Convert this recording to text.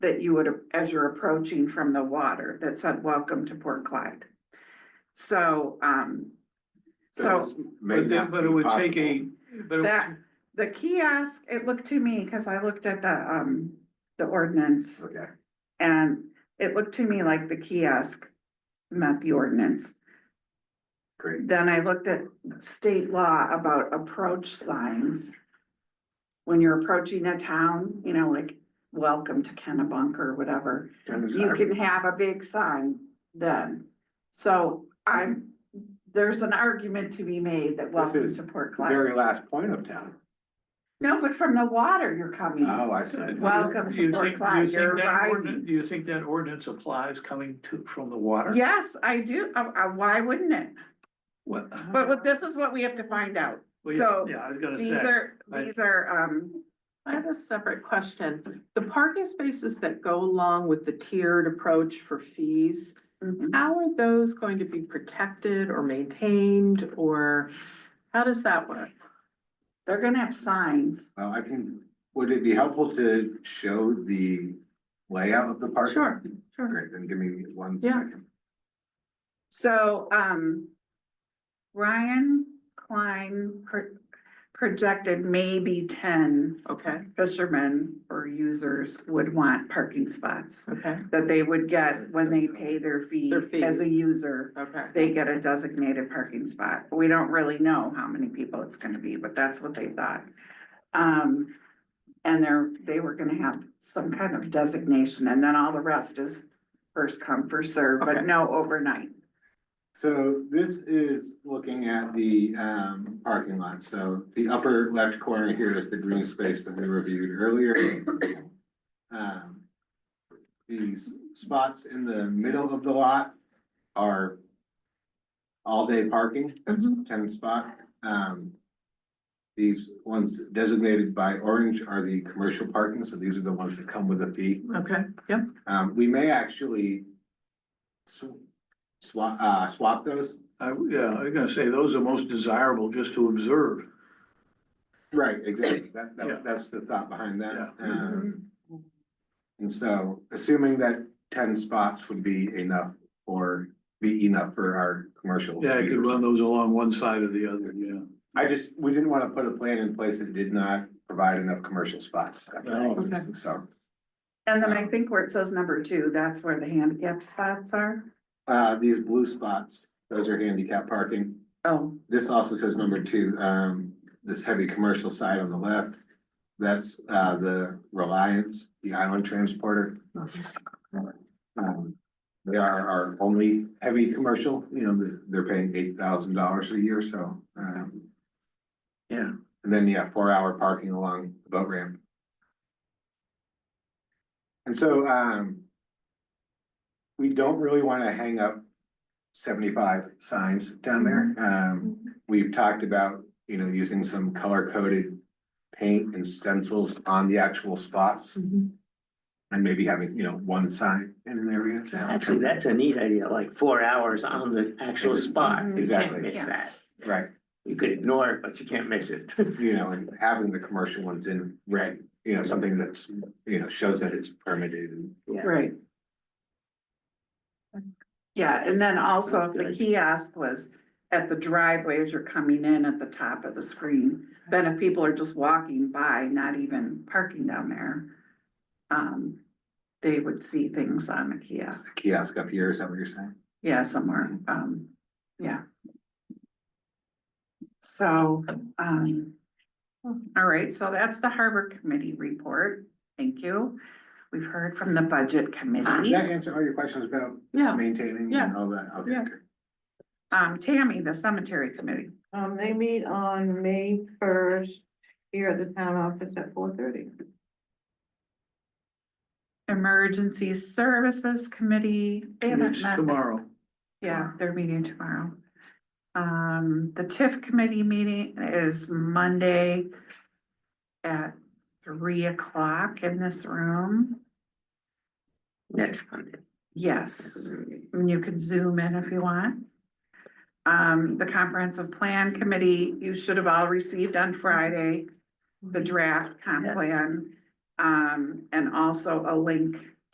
that you would, as you're approaching from the water that said, welcome to Port Clyde. So, um, so Those may But not then, but be it would take possible. a, but it That- the kiosk, it looked to me, because I looked at the, um, the ordinance Okay, and it looked to me like the kiosk met the ordinance. great. Then I looked at state law about approach signs. When you're approaching a town, you know, like, welcome to Kennebunk or whatever, you can have a big sign then. So I'm, there's an argument to be made that welcome is to Port Clyde. Very last point of town. No, but from the water you're coming. Oh, I see. Welcome Do you to Port think, do Clyde, you think you're that ordinance, arriving. do you think that ordinance applies coming to, from the water? Yes, I do. Uh, uh, why wouldn't it? What- But what, this is what we have to find out. Well, yeah, so Yeah, I was gonna These say, are, I- these are, um, I have a separate question. The parking spaces that go along with the tiered approach for fees, mhm. how are those going to be protected or maintained or how does that work? they're gonna have signs. Well, I can, would it be helpful to show the layout of the park? Sure, sure. Great, then give me one Yeah. second. So, um, Ryan Klein pro- projected maybe ten Okay, fishermen or users would want parking spots okay, that they would get when they pay their fee Their fee. as a user. okay. They get a designated parking spot. We don't really know how many people it's gonna be, but that's what they thought. Um, and they're, they were gonna have some kind of designation and then all the rest is first come, first serve, but Okay. no overnight. So this is looking at the um parking lot. So the upper left corner here is the green space that we reviewed earlier. Um, These spots in the middle of the lot are all-day parking. That's ten spot. Um, These ones designated by orange are the commercial parking, so these are the ones that come with a fee. Okay, yep, Um, we may actually swap, uh, swap those. I, yeah, I was gonna say, those are most desirable just to observe. Right, exactly. That, Yeah. that, that's the thought behind that. Yeah. Um, and so assuming that ten spots would be enough or be enough for our commercial. Yeah, you could users. run those along one side or the other, yeah. I just, we didn't want to put a plan in place that did not provide enough commercial spots. No. Okay. So, And Oh. then I think where it says number two, that's where the handicap spots are. uh, these blue spots, those are handicap parking. Oh, This also says number two, um, this heavy commercial side on the left. That's, uh, the Reliance, the island transporter. Um, They are our only heavy commercial, you know, th- they're paying eight thousand dollars a year, so, um. Yeah. And then, yeah, four hour parking along the boat ramp. And so, um. We don't really wanna hang up seventy-five signs down there, um, we've talked about, you know, using some color coded. Paint and stencils on the actual spots Mm-hmm. and maybe having, you know, one sign in an area. Actually, that's a neat idea, like four hours on the actual spot. You Exactly. can't miss Yeah. that. Right, You could ignore it, but you can't miss it. you know, and having the commercial ones in red, you know, something that's, you know, shows that it's permitted and. Yeah. right. Yeah, and then also if the Okay. kiosk was at the driveway as you're coming in at the top of the screen. Then if people are just walking by, not even parking down there, um, they would see things on the kiosk. Kiosk up here, is that what you're saying? Yeah, somewhere, um, yeah. So, um, all right, so that's the Harbor Committee report. Thank you. We've heard from the Budget Did Committee. that answer all your questions about yeah. maintaining Yeah. and all that? Okay, Yeah. good. Um, Tammy, the Cemetery Committee. Um, they meet on May first here at the town office at four thirty. Emergency Services Committee. They haven't It's met. Tomorrow. Yeah, they're meeting tomorrow. Um, the TIF committee meeting is Monday at three o'clock in this room. Next Monday. Yes, and you can zoom in if you want. Um, the comprehensive plan committee, you should have all received on Friday, the draft comp plan. um, and also a link